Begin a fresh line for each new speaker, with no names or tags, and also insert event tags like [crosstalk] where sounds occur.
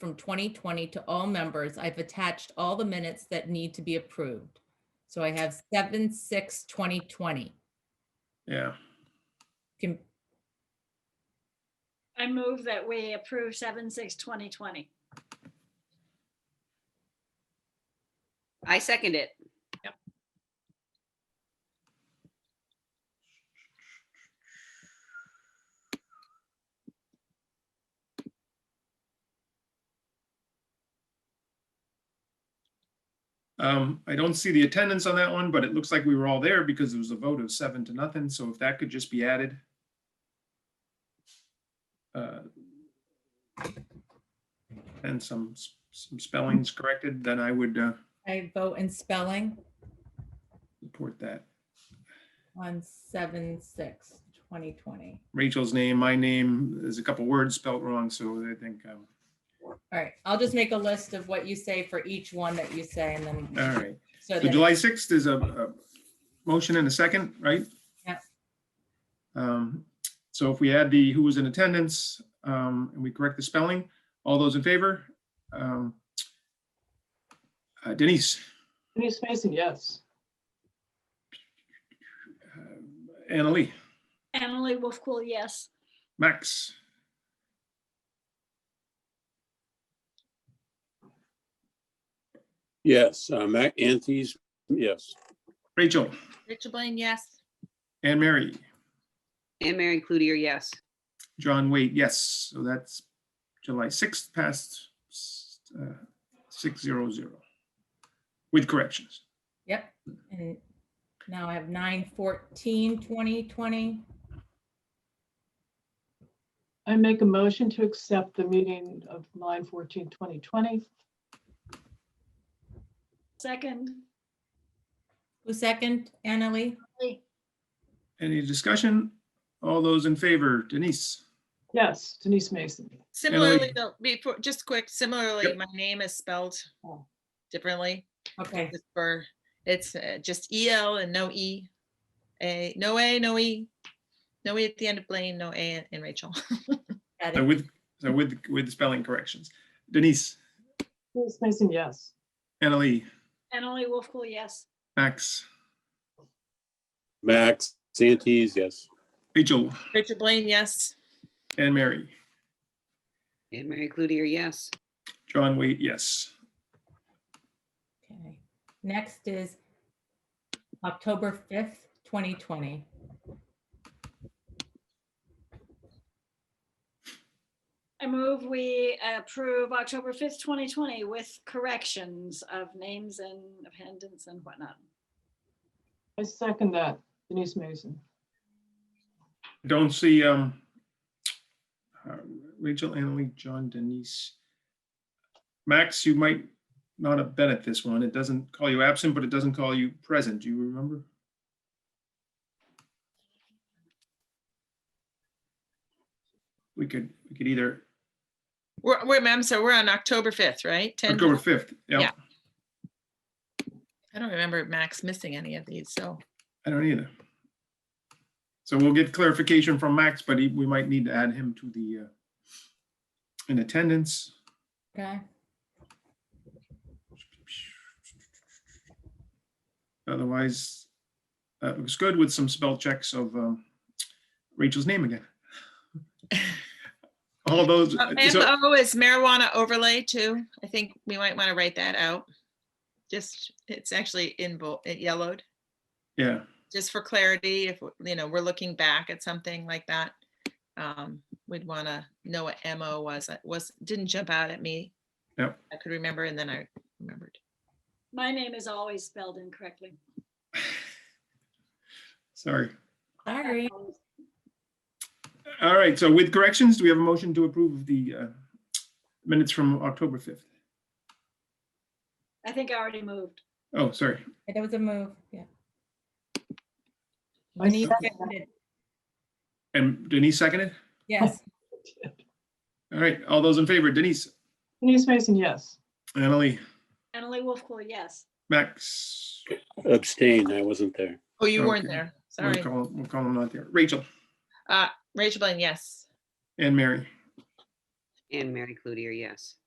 from 2020 to all members, I've attached all the minutes that need to be approved. So I have 7, 6, 2020.
Yeah,
Can,
I move that we approve seven, six, 2020.
I second it.
um, I don't see the attendance on that one, but it looks like we were all there because it was a vote of seven to nothing, so if that could just be added. uh, And some, s- some spellings corrected, then I would uh,
I vote in spelling
report that.
on 7, 6, 2020.
Rachel's name, my name, there's a couple words spelt wrong, so I think, um,
All right, I'll just make a list of what you say for each one that you say and then.
all right.
so
So
that-
July 6th is a, a motion and a second, right?
Yep.
Um, So if we add the who was in attendance um, and we correct the spelling, all those in favor? Um, uh, Denise,
Denise Mason, yes.
uh, Annalee,
Annalee Wolfcool, yes.
Max,
Yes, uh, Mac Antes, yes.
Rachel,
Rachel Blaine, yes.
Anne Mary,
And Mary Cloutier, yes.
John Wade, yes. So that's July 6th past uh, 600 with corrections.
Yep, and now I have 9, 14, 2020.
I make a motion to accept the meeting of 9 14 2020.
Second,
Who second, Annalee?
Lee,
Any discussion? All those in favor? Denise?
Yes, Denise Mason.
Similarly, the- before, just quick, similarly,
Yep.
my name is spelled
Oh.
differently.
Okay,
It's for, it's uh, just E L and no E. A, no A, no E. No E at the end of Blaine, no A in Rachel. [laughs]
got
So
it.
with, so with, with spelling corrections. Denise,
Denise Mason, yes.
Annalee,
Annalee Wolfcool, yes.
Max,
Max Antes, yes.
Rachel,
Rachel Blaine, yes.
and Mary.
And Mary Cloutier, yes.
John Wait, yes.
Okay. Next is October 5th, 2020.
I move we approve October 5th, 2020 with corrections of names and appendants and whatnot.
I second that, Denise Mason.
Don't see, um, uh, Rachel, Annalee, John, Denise. Max, you might not have been at this one. It doesn't call you absent, but it doesn't call you present. Do you remember? We could, we could either,
We're, we're, ma'am, so we're on October 5th, right? 10
October 5th. Yeah,
Yeah. I don't remember Max missing any of these, so.
I don't either. So we'll get clarification from Max, but he- we might need to add him to the, uh, in attendance.
Okay,
Otherwise, uh, it was good with some spell checks of um, Rachel's name again. [laughs] All those,
Uh,
so
MO is marijuana overlay too. I think we might want to write that out. Just, it's actually in, bo- it yellowed,
yeah,
just for clarity, if, you know, we're looking back at something like that. um, We'd want to know what MO was, It was, didn't jump out at me.
Yep.
I could remember and then I remembered.
My name is always spelled incorrectly.
sorry.
sorry.
All right, so with corrections, do we have a motion to approve the uh, minutes from October 5th?
I think I already moved.
Oh, sorry.
That was a move, yeah.
I
Denise
second
seconded.
And Denise seconded?
Yes,
All right, all those in favor, Denise,
Denise Mason, yes.
Annalee,
Annalee Wolfcool, yes.
Max,
Abstain, I wasn't there.
Oh, you weren't
Okay.
there.
we'll
Sorry.
call, we'll call them not there. Rachel
Uh, Rachel Blaine, yes.
and Mary.
And Mary Cloutier, yes.